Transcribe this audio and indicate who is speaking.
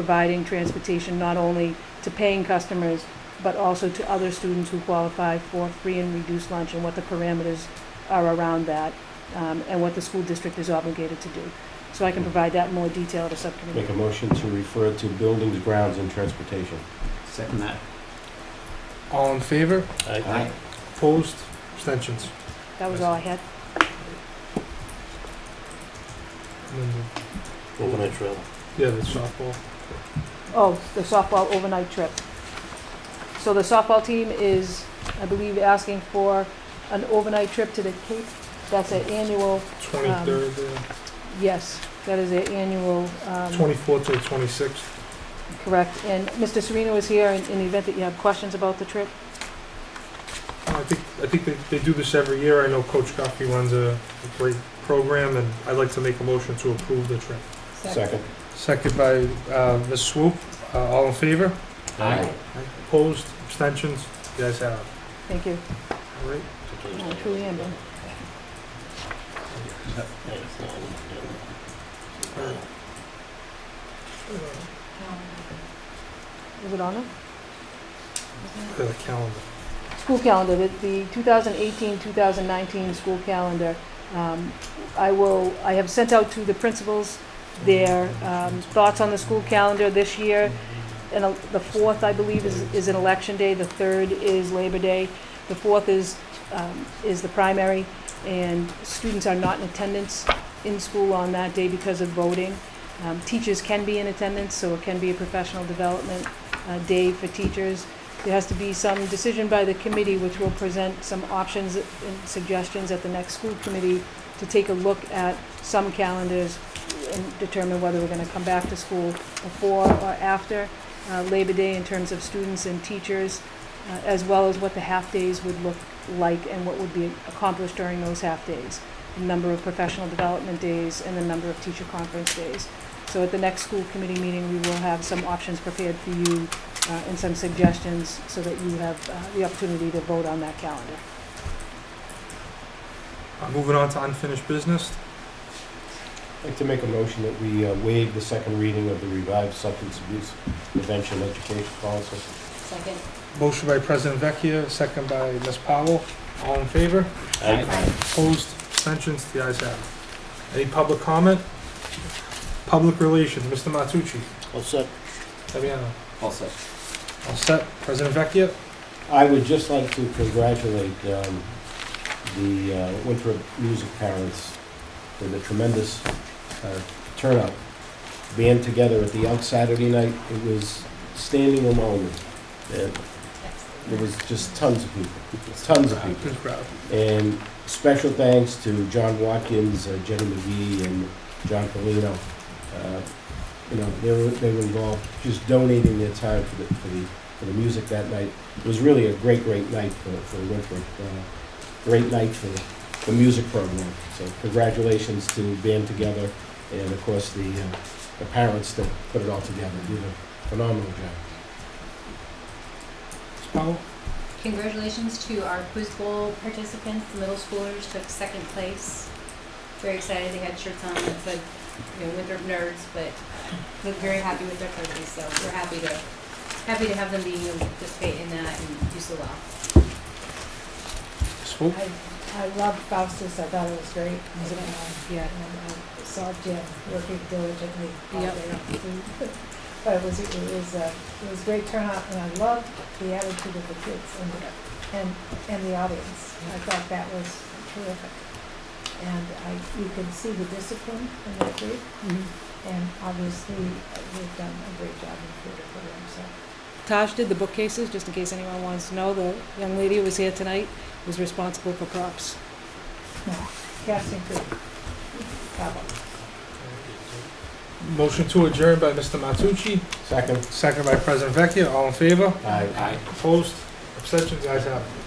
Speaker 1: providing transportation not only to paying customers, but also to other students who qualify for free and reduced lunch and what the parameters are around that, um, and what the school district is obligated to do. So I can provide that in more detail to subcommittee.
Speaker 2: Make a motion to refer to buildings, grounds, and transportation.
Speaker 3: Second that.
Speaker 4: All in favor?
Speaker 2: Aye.
Speaker 4: Opposed? Abstentions?
Speaker 1: That was all I had.
Speaker 4: And then
Speaker 2: Overnight travel.
Speaker 4: the- Yeah, the softball.
Speaker 1: Oh, the softball overnight trip. So the softball team is, I believe, asking for an overnight trip to the Cape. That's an annual,
Speaker 4: Twenty-third, uh,
Speaker 1: yes, that is an annual, um,
Speaker 4: twenty-fourth to the twenty-sixth.
Speaker 1: correct. And Mr. Sereno is here in, in the event that you have questions about the trip.
Speaker 4: I think, I think they, they do this every year. I know Coach Guffey runs a a great program, and I'd like to make a motion to approve the trip.
Speaker 2: Second.
Speaker 4: Second by, uh, Ms. Swoop. Uh, all in favor?
Speaker 3: Aye.
Speaker 4: Opposed? Abstentions? You guys have it.
Speaker 1: Thank you.
Speaker 4: All right.
Speaker 1: I Oh, truly am done. Is it on it?
Speaker 4: Uh, The calendar.
Speaker 1: School calendar, the, the 2018-2019 school calendar. Um, I will, I have sent out to the principals their um, thoughts on the school calendar this year. And uh, the fourth, I believe, is, is an election day. The third is Labor Day. The fourth is, um, is the primary, and students are not in attendance in school on that day because of voting. Um, Teachers can be in attendance, so it can be a professional development uh, day for teachers. There has to be some decision by the committee, which will present some options and suggestions at the next school committee to take a look at some calendars and determine whether we're going to come back to school before or after uh, Labor Day in terms of students and teachers, uh, as well as what the half-days would look like and what would be accomplished during those half-days, the number of professional development days and the number of teacher conference days. So at the next school committee meeting, we will have some options prepared for you uh, and some suggestions so that you have uh, the opportunity to vote on that calendar.
Speaker 4: Uh, Moving on to unfinished business.
Speaker 2: I'd like to make a motion that we uh, waive the second reading of the revised substance abuse prevention education policy.
Speaker 5: Second.
Speaker 4: Motion by President Vecchia, second by Ms. Powell. All in favor? Opposed, abstentions, the ayes have it. Any public comment? Public relations, Mr. Matucci.
Speaker 2: All set.
Speaker 4: Fabiano.
Speaker 3: Also.
Speaker 4: All set, President Vecchia?
Speaker 2: I would just like to congratulate um, the uh, Winthrop music parents for the tremendous uh, turnout. Band together at the Elk Saturday night, it was standing room only. And There was just tons of people, tons of people.
Speaker 4: Good crowd.
Speaker 2: And special thanks to John Watkins, uh, Jenny McGee, and John Polino. Uh, You know, they were, they were involved, just donating their time for the, for the, for the music that night. It was really a great, great night for, for Winthrop. uh, Great night for the music program. So congratulations to Band Together and of course the, uh, the parents that put it all together. Did a phenomenal job.
Speaker 4: Ms. Powell?
Speaker 5: Congratulations to our quiz bowl participants. The middle schoolers took second place. Very excited. They had shirts on that said, you know, Winthrop Nerds, but looked very happy with their purchase. So we're happy to, happy to have them be able to participate in that and do so well.
Speaker 4: Ms. Swope?
Speaker 6: I, I loved Faustus, I thought it was great. um,
Speaker 1: Was it? Yeah.
Speaker 6: And I saw Jim working diligently all day
Speaker 5: Yep.
Speaker 6: on the food. But it was, it was, uh, it was great turnout, and I loved the attitude of the kids and, the- and, and the audience. I thought that was terrific. And I, you can see the discipline in the group,
Speaker 1: Mm-hmm.
Speaker 6: and obviously, uh, they've done a great job in the theater program, so.
Speaker 1: Taj did the bookcases, just in case anyone wants to know. The young lady who was here tonight was responsible for props.
Speaker 6: Casting crew, bravo.
Speaker 4: Motion to adjourn by Mr. Matucci,
Speaker 2: Second.
Speaker 4: second by President Vecchia. All in favor?
Speaker 2: Aye.
Speaker 3: Aye.
Speaker 4: Opposed, abstentions, the ayes have it.